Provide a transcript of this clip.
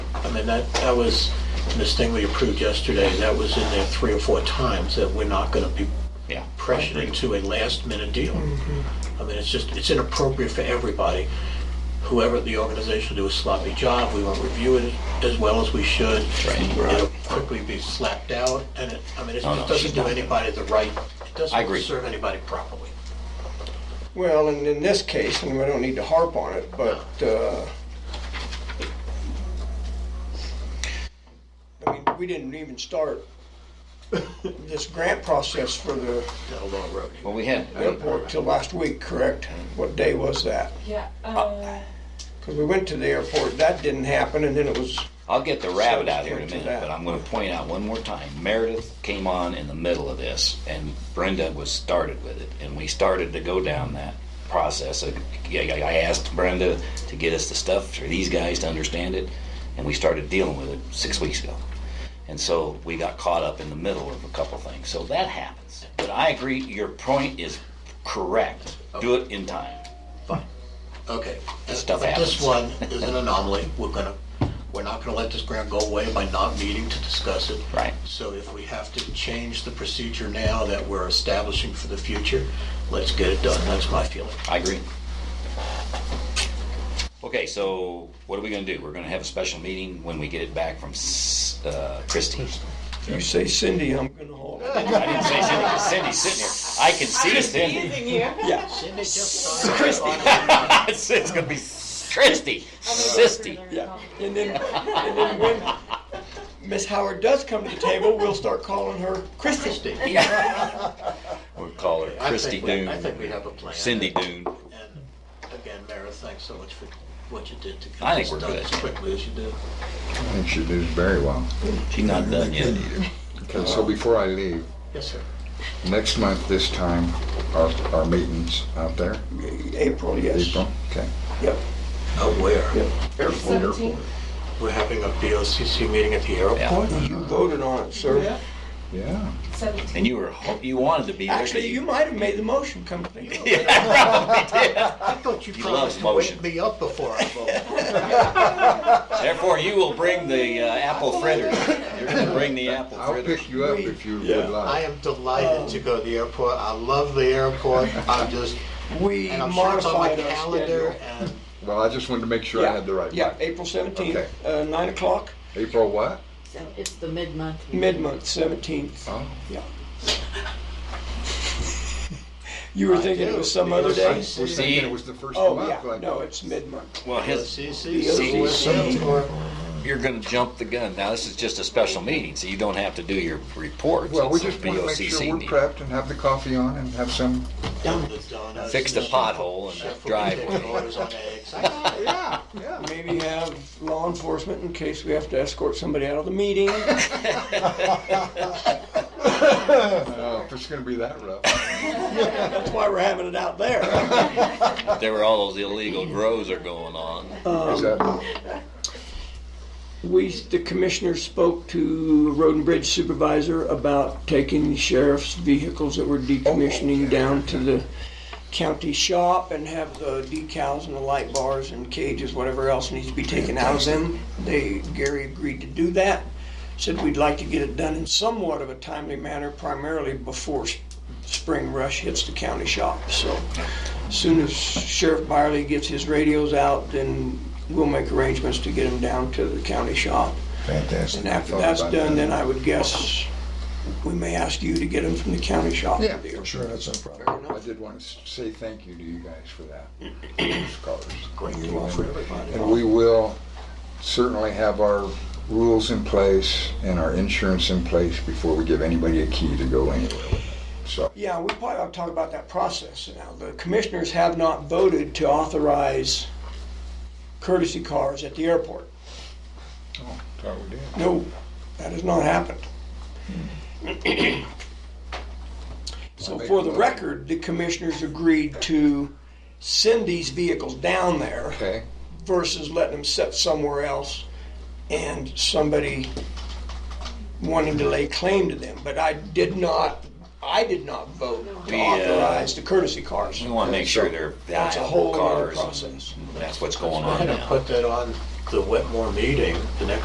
I mean, that, that was, this thing we approved yesterday, that was in there three or four times, that we're not gonna be Yeah. pressured into a last minute deal. Mm-hmm. I mean, it's just, it's inappropriate for everybody. Whoever at the organization do a sloppy job, we won't review it as well as we should. Right. Oh, It'll quickly be slapped out, and it, I mean, it No, no, just she's doesn't do not. anybody the right, it I doesn't agree. serve anybody properly. Well, and in this case, and we don't need to harp on it, but, uh, I mean, we didn't even start this grant process for the Down a long road. Well, we had, airport till last week, correct? What day was that? Yeah, uh, Because we went to the airport, that didn't happen, and then it was, I'll get the rabbit out here in a Subject to minute, but that. I'm gonna point out one more time, Meredith came on in the middle of this, and Brenda was started with it, and we started to go down that process. I I- I asked Brenda to get us the stuff for these guys to understand it, and we started dealing with it six weeks ago. And so we got caught up in the middle of a couple things, so that happens. But I agree, your point is correct, do it in time. Fine. Okay. This stuff But This happens. one is an anomaly. We're gonna, we're not gonna let this grant go away by not meeting to discuss it. Right. So if we have to change the procedure now that we're establishing for the future, let's get it done. That's my feeling. I agree. Okay, so what are we gonna do? We're gonna have a special meeting when we get it back from S- uh, Christie. you say Cindy, I'm gonna hold it. I didn't say Cindy, 'cause Cindy's sitting here. I can see Cindy. teasing you. Yeah, Cindy just signed Christie. It's it's gonna be Christie, Sisty. yeah. And then, and then when Miss Howard does come to the table, we'll start calling her Christie. Christie. Yeah. We'll call her I Christie think we- Doon. I think we have a plan. Cindy Doon. And again, Mayor, thanks so much for what you did to I get think this we're done good. as quickly as you did. I think she does very well. Uh, She's not done yet. Okay, so before I leave, Yes, sir. next month this time, our, our meeting's out there, April, yes. April, okay? Yep. Oh, Aware. Yep. Seventeen. We're having a BOCC meeting at the Yeah. airport. You voted on it, sir. Yeah. Seventeen. And you were, ho- you wanted to be there. but Actually, you might have made the motion come to think of it. Yeah, probably did. I thought you He promised loves to wake motion. me up before I vote. Therefore, you will bring the uh, apple fritters. You're gonna bring the apple I'll fritters. pick you up if you Yeah. would I like. am delighted to go to the airport. I love the airport. I'm just, We and I'm sure it's on my modified our calendar schedule. and Well, I just wanted to make sure I had the right Yeah, one. April seventeenth, Okay. uh, nine o'clock, April what? So it's the mid-month. mid-month, seventeenth, Oh, yeah. You were thinking it do. was some other I day? was thinking it was the first Oh, month. yeah, like- no, it's mid-month. Well, his, CC, CC. CC, or you're gonna jump the gun. Now, this is just a special meeting, so you don't have to do your reports. Well, we It's a just want to make BOCC sure we're meeting. prepped and have the coffee on and have some, down the donuts. Fix the pothole and Chef the will be taking driveway. orders on eggs. I- yeah, yeah. Maybe have law enforcement in case we have to escort somebody out of the meeting. Oh, if it's gonna be that rough. That's why we're having it out there. There were all those illegal grows are going on. Um, Is that, We, the commissioner spoke to Road and Bridge Supervisor about taking the sheriff's vehicles that we're decommissioning down to the county shop and have the decals and the light bars and cages, whatever else needs to be taken out of them. They, Gary agreed to do that, said we'd like to get it done in somewhat of a timely manner, primarily before s- spring rush hits the county shop, so. as Soon as Sheriff Byerly gets his radios out, then we'll make arrangements to get them down to the county shop. fantastic. And after Thought that's about done, that. then I would guess we may ask you to get them from the county shop. Yeah, sure, that's no I problem. did want to say thank you to you guys for that. Those colors. Great deal for everybody. And we will certainly have our rules in place and our insurance in place before we give anybody a key to go anywhere with it. So, Yeah, we probably ought to talk about that process now. The commissioners have not voted to authorize courtesy cars at the airport. oh, thought we did. No, that has not happened. Hmm. So for the record, the commissioners agreed to send these vehicles down there Okay, versus letting them sit somewhere else and somebody wanting to lay claim to them. But I did not, I did not vote to uh, authorize the courtesy cars. We want to make sure they're That's a valuable whole other cars. process. That's what's going I'm on gonna now. put that on the Wetmore meeting, the next